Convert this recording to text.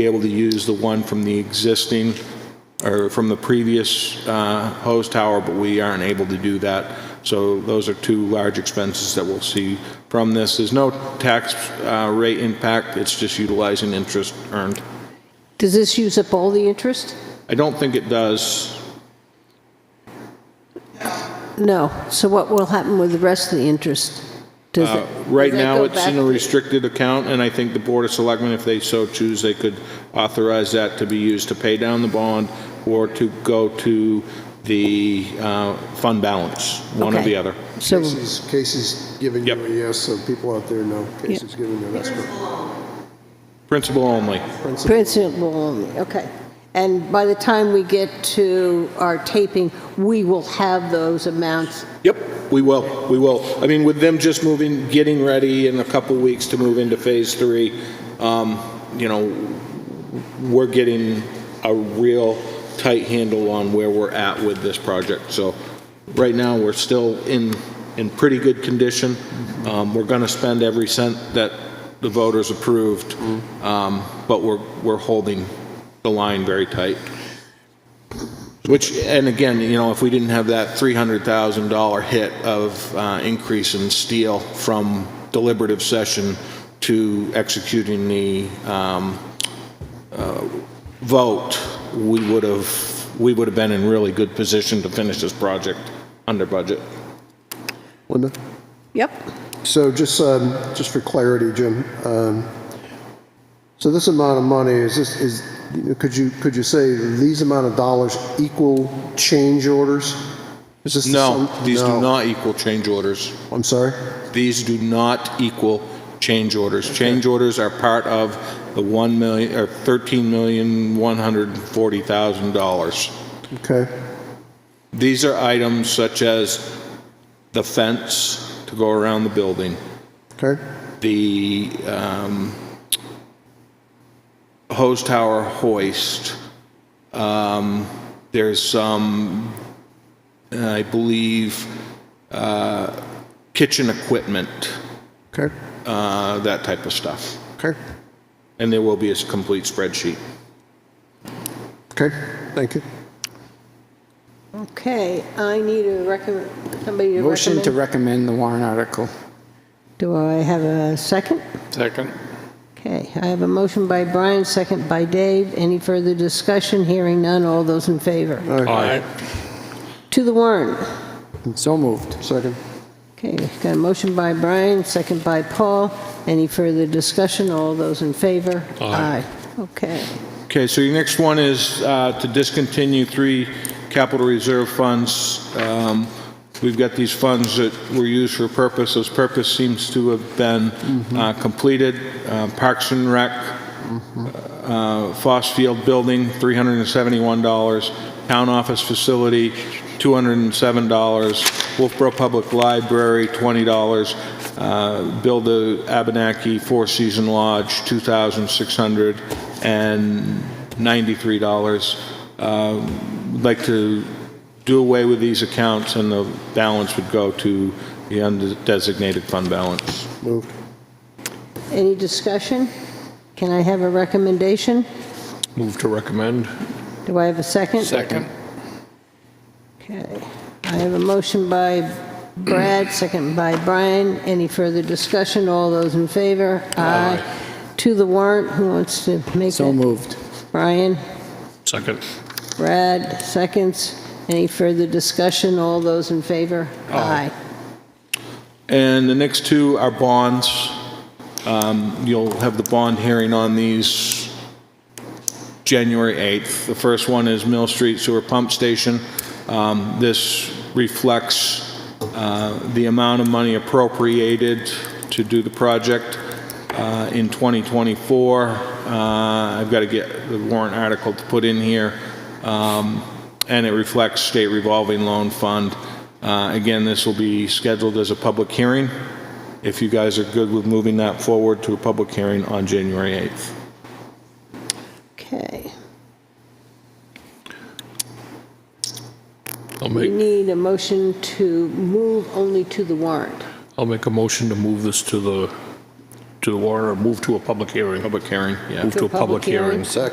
be able to use the one from the existing, or from the previous uh, hose tower, but we aren't able to do that. So those are two large expenses that we'll see from this. There's no tax uh, rate impact, it's just utilizing interest earned. Does this use up all the interest? I don't think it does. No. So what will happen with the rest of the interest? Does it? Right does that now, go it's in a back- restricted account, and I think the Board of Selectmen, if they so choose, they could authorize that to be used to pay down the bond or to go to the uh, fund balance, one or Okay. the other. So, Casey's, Casey's giving Yep. you a yes, so people out there know Casey's giving you a yes. but Principal only. principle- principal only, okay. And by the time we get to our taping, we will have those amounts. Yep, we will, we will. I mean, with them just moving, getting ready in a couple weeks to move into Phase 3, um, you know, we're getting a real tight handle on where we're at with this project. So right now, we're still in, in pretty good condition. Um, We're going to spend every cent that the voters approved, um, but we're, we're holding the line very tight. Which, and again, you know, if we didn't have that $300,000 hit of uh, increase in steel from deliberative session to executing the um, uh, vote, we would have, we would have been in really good position to finish this project under budget. Linda? Yep. So just, um, just for clarity, Jim, um, so this amount of money, is this, is, you know, could you, could you say these amount of dollars equal change orders? Is this the No, sum- these do No. not equal change orders. I'm sorry? These do not equal change orders. Change orders are part of the 1 million, or $13,140,000. Okay, These are items such as the fence to go around the building, okay, the um, hose tower hoist. Um, There's some, I believe, uh, kitchen equipment, okay, uh, that type of stuff. okay, And there will be a s- complete spreadsheet. okay, thank you. Okay, I need a recommend, somebody to Motion to recommend. recommend the warrant article. Do I have a second? Second. Okay, I have a motion by Brian, second by Dave. Any further discussion? Hearing none. All those in favor? Aye. To the warrant. So moved. Second, Okay, got a motion by Brian, second by Paul. Any further discussion? All those in favor? Aye. Okay. Okay, so your next one is uh, to discontinue three capital reserve funds. Um, We've got these funds that were used for purpose, those purpose seems to have been uh, completed. Uh, Parks and Rec, uh, Foss Field Building, $371. Town Office Facility, $207. Wolfboro Public Library, $20. Uh, Build the Abenaki Four Season Lodge, $2,693. Um, I'd Like to do away with these accounts, and the balance would go to the undesignated fund balance. moved. Any discussion? Can I have a recommendation? Move to recommend. Do I have a second? Second. Okay. I have a motion by Brad, second by Brian. Any further discussion? All those in favor? Aye. To the warrant, who wants to make So it? moved. Brian? Second. Brad, seconds. Any further discussion? All those in favor? Aye. And the next two are bonds. Um, You'll have the bond hearing on these January 8th. The first one is Mill Street Sewer Pump Station. Um, This reflects uh, the amount of money appropriated to do the project uh, in 2024. Uh, I've got to get the warrant article to put in here. Um, And it reflects state revolving loan fund. Uh, Again, this will be scheduled as a public hearing, if you guys are good with moving that forward to a public hearing on January 8th. Okay. I'll We make, need a motion to move only to the warrant. I'll make a motion to move this to the to the warrant or move to a public hearing. Public hearing, yeah. Move to a public hearing.